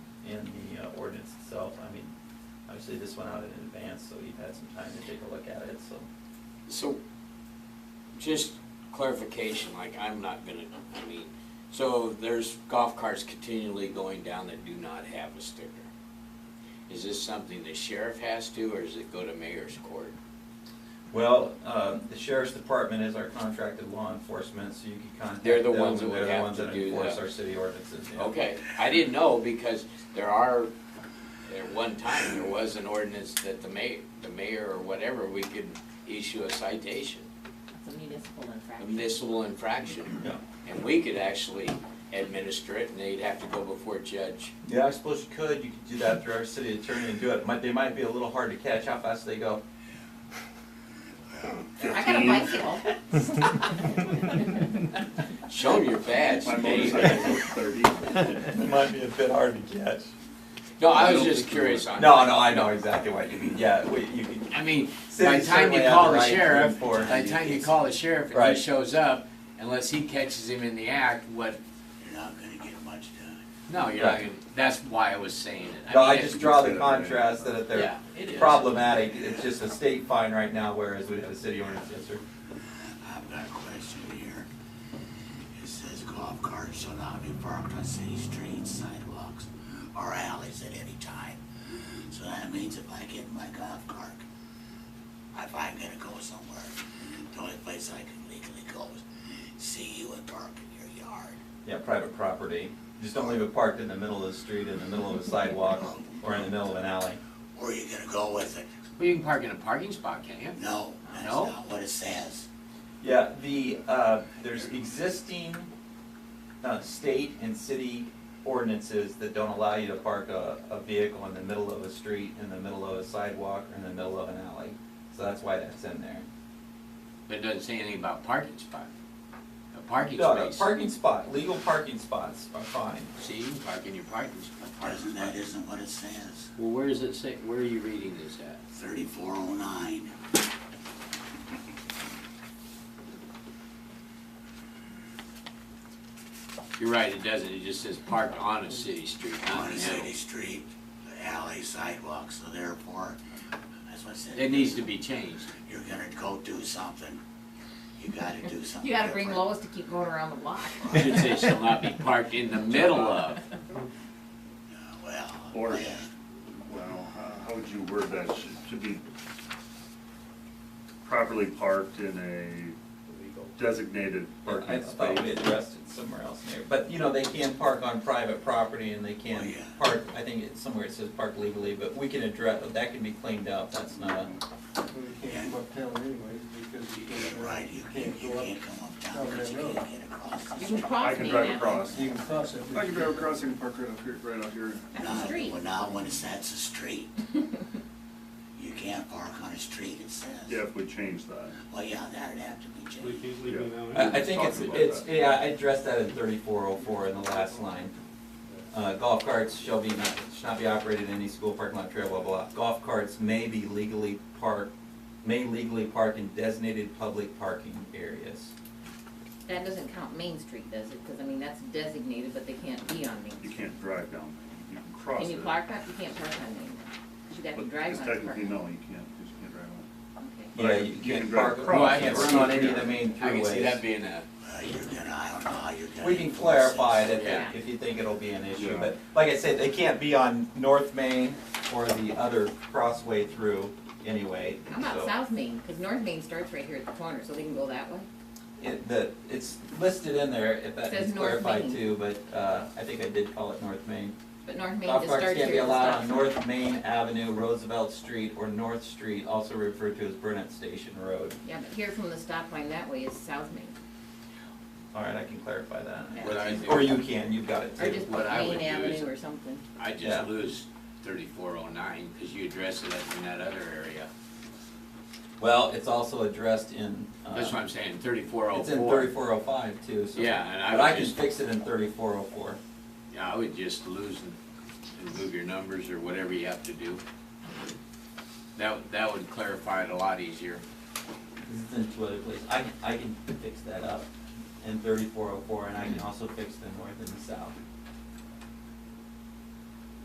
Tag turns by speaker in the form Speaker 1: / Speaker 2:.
Speaker 1: uh, itself, I mean, obviously this went out in advance, so you've had some time to take a look at it, so.
Speaker 2: So, just clarification, like, I'm not gonna, I mean, so there's golf carts continually going down that do not have a sticker. Is this something the sheriff has to, or does it go to mayor's court?
Speaker 1: Well, uh, the sheriff's department is our contracted law enforcement, so you can contact them.
Speaker 2: They're the ones that
Speaker 1: and
Speaker 2: would
Speaker 1: they're the
Speaker 2: have
Speaker 1: ones
Speaker 2: to
Speaker 1: that
Speaker 2: do
Speaker 1: enforce
Speaker 2: that.
Speaker 1: our city ordinances, yeah.
Speaker 2: Okay, I didn't know, because there are, at one time, there was an ordinance that the mayor, the mayor or whatever, we could issue a citation,
Speaker 3: It's a municipal
Speaker 2: a
Speaker 3: infraction.
Speaker 2: municipal infraction.
Speaker 1: Yeah.
Speaker 2: And we could actually administer it, and they'd have to go before judge.
Speaker 1: Yeah, I suppose you could, you could do that through our city attorney and do it, might, they might be a little hard to catch, how fast they go.
Speaker 3: I got a bicycle.
Speaker 2: Show 'em your badge,
Speaker 4: My
Speaker 2: Dave.
Speaker 4: motorcycle's thirty.
Speaker 1: It might be a bit hard to catch.
Speaker 2: No, I
Speaker 4: I
Speaker 2: was
Speaker 4: don't
Speaker 2: just
Speaker 4: think
Speaker 2: curious on.
Speaker 1: No, no, I know exactly what you mean, yeah, we, you could,
Speaker 2: I mean, by the
Speaker 1: Cities
Speaker 2: time you
Speaker 1: certainly have
Speaker 2: call
Speaker 1: the
Speaker 2: the
Speaker 1: right to
Speaker 2: sheriff,
Speaker 1: enforce
Speaker 2: by the time you call the sheriff and
Speaker 1: Right.
Speaker 2: he shows up, unless he catches him in the act, what,
Speaker 5: You're not gonna get much done.
Speaker 2: no, you're not
Speaker 1: Right.
Speaker 2: gonna, that's why I was saying it.
Speaker 1: no, I
Speaker 2: mean, it-
Speaker 1: just draw the contrast that if they're
Speaker 2: Yeah, it is.
Speaker 1: problematic, it's just a state fine right now, whereas we have a city ordinance, yes, sir.
Speaker 5: I've got a question here. It says golf carts shall not be parked on city streets, sidewalks, or alleys at any time. So that means if I get in my golf cart, if I'm gonna go somewhere, the only place I can legally go is see you and park in your yard.
Speaker 1: Yeah, private property, just don't leave it parked in the middle of the street, in the middle of a sidewalk, or in the middle of an alley.
Speaker 5: Where are you gonna go with it?
Speaker 2: Well, you can park in a parking spot, can't you?
Speaker 5: No, that's
Speaker 2: No?
Speaker 5: not what it says.
Speaker 1: Yeah, the, uh, there's existing, uh, state and city ordinances that don't allow you to park a, a vehicle in the middle of a street, in the middle of a sidewalk, or in the middle of an alley. So that's why that's in there.
Speaker 2: But it doesn't say anything about parking spot. A parking
Speaker 1: No, no,
Speaker 2: space,
Speaker 1: parking spot, legal parking spots are fine.
Speaker 2: see, you can park in your parking spot. parking
Speaker 5: Doesn't, that
Speaker 2: spot.
Speaker 5: isn't what it says.
Speaker 2: Well, where is it say, where are you reading this at?
Speaker 5: Thirty-four oh nine.
Speaker 2: You're right, it doesn't, it just says parked on a city street, not in
Speaker 5: on a
Speaker 2: the middle.
Speaker 5: city street, alley, sidewalk, so therefore, that's what I said.
Speaker 2: It needs to be changed.
Speaker 5: You're gonna go do something, you gotta do something.
Speaker 3: You gotta bring
Speaker 5: different.
Speaker 3: Lois to keep going around the block.
Speaker 2: It should say shall not be parked in the middle of.
Speaker 5: Uh, Well.
Speaker 4: Or-
Speaker 5: yeah.
Speaker 4: Well, uh, how- how would you word that? Should- To be properly parked in a designated
Speaker 1: I
Speaker 4: parking
Speaker 1: thought we
Speaker 4: space.
Speaker 1: addressed it somewhere else in there, but, you know, they can park on private property and they
Speaker 5: Oh,
Speaker 1: can
Speaker 5: yeah.
Speaker 1: park, I think it's somewhere it says park legally, but we can address, that can be cleaned up, that's not a.
Speaker 6: Well, you can't go uptown anyways, because you
Speaker 5: You're
Speaker 6: can't,
Speaker 5: Right, you
Speaker 6: can't
Speaker 5: can't, you
Speaker 6: go up,
Speaker 5: can't come uptown,
Speaker 6: over
Speaker 5: because you
Speaker 6: that road.
Speaker 5: can't get across. the
Speaker 3: You
Speaker 5: street.
Speaker 3: can cross
Speaker 4: I can
Speaker 3: me
Speaker 4: drive
Speaker 3: now.
Speaker 4: across.
Speaker 6: you can cross it.
Speaker 7: I can drive across and park right up here, right out here.
Speaker 3: That's a
Speaker 5: Now-
Speaker 3: street.
Speaker 5: Well, now, when it's, that's a street. You can't park on a street, it says.
Speaker 4: Yeah, if we change that.
Speaker 5: Well, yeah, that'd have to be
Speaker 8: We
Speaker 5: changed.
Speaker 8: can't leave it out.
Speaker 1: I, I think it's,
Speaker 4: Talking about
Speaker 1: it's,
Speaker 4: that.
Speaker 1: yeah, I addressed that in thirty-four oh four in the last line. Uh, golf carts shall be not, should not be operated in any school parking lot, trail, blah, blah, blah. Golf carts may be legally parked, may legally park in designated public parking areas.
Speaker 3: That doesn't count Main Street, does it? Cause I mean, that's designated, but they can't be on Main
Speaker 4: You
Speaker 3: Street.
Speaker 4: can't drive down, you can cross it.
Speaker 3: Can you park on, you can't park on Main, you'd have to
Speaker 4: But
Speaker 3: drive on it.
Speaker 4: Technically, no, you can't, you just can't drive on it.
Speaker 3: Okay.
Speaker 4: But I
Speaker 1: Yeah,
Speaker 4: can-
Speaker 1: you
Speaker 4: you can
Speaker 1: can't
Speaker 4: drive
Speaker 1: park, you
Speaker 4: across.
Speaker 2: Well, I
Speaker 1: can't
Speaker 2: can
Speaker 1: run
Speaker 2: see
Speaker 1: on
Speaker 2: it
Speaker 1: any of
Speaker 2: here.
Speaker 1: the main
Speaker 2: I can see that
Speaker 1: throughways.
Speaker 2: being a,
Speaker 5: Well, you're gonna, I don't know how you're gonna.
Speaker 1: We can
Speaker 5: enforce it.
Speaker 1: clarify it
Speaker 2: Yeah.
Speaker 1: if, if you think it'll be an issue,
Speaker 4: Yeah.
Speaker 1: but like I said, they can't be on North Main or the other crossway through anyway,
Speaker 3: How about
Speaker 1: so.
Speaker 3: South Main? Cause North Main starts right here at the corner, so they can go that way.
Speaker 1: It, the, it's listed in there, if that
Speaker 3: Says
Speaker 1: is
Speaker 3: North
Speaker 1: clarified
Speaker 3: Main.
Speaker 1: too, but, uh, I think I did call it North Main.
Speaker 3: But North Main
Speaker 1: Golf
Speaker 3: just
Speaker 1: carts
Speaker 3: starts here.
Speaker 1: can't be
Speaker 3: at the
Speaker 1: allowed
Speaker 3: stop
Speaker 1: on
Speaker 3: sign.
Speaker 1: North Main Avenue, Roosevelt Street, or North Street, also referred to as Burnett Station Road.
Speaker 3: Yeah, but here from the stop line that way is South Main.
Speaker 1: All right, I can clarify
Speaker 3: Yeah.
Speaker 1: that.
Speaker 2: what I
Speaker 1: Or
Speaker 2: do,
Speaker 1: you can, you've got it
Speaker 3: Or
Speaker 1: too.
Speaker 3: just
Speaker 2: What
Speaker 3: put
Speaker 2: I would
Speaker 3: Main
Speaker 2: do is-
Speaker 3: Avenue or something.
Speaker 2: I
Speaker 1: Yeah.
Speaker 2: just lose thirty-four oh nine, cause you address it up in that other area.
Speaker 1: Well, it's also addressed in, uh,
Speaker 2: That's what I'm saying, thirty-four oh
Speaker 1: it's in
Speaker 2: four.
Speaker 1: thirty-four oh five too, so.
Speaker 2: Yeah, and I
Speaker 1: But I
Speaker 2: would
Speaker 1: can
Speaker 2: just,
Speaker 1: fix it in thirty-four oh four.
Speaker 2: yeah, I would just lose and, and move your numbers or whatever you have to do. That, would- that would clarify it a lot easier.
Speaker 1: It's in two other places. I, can- I can fix that up in thirty-four oh four, and I can also fix the north and the south.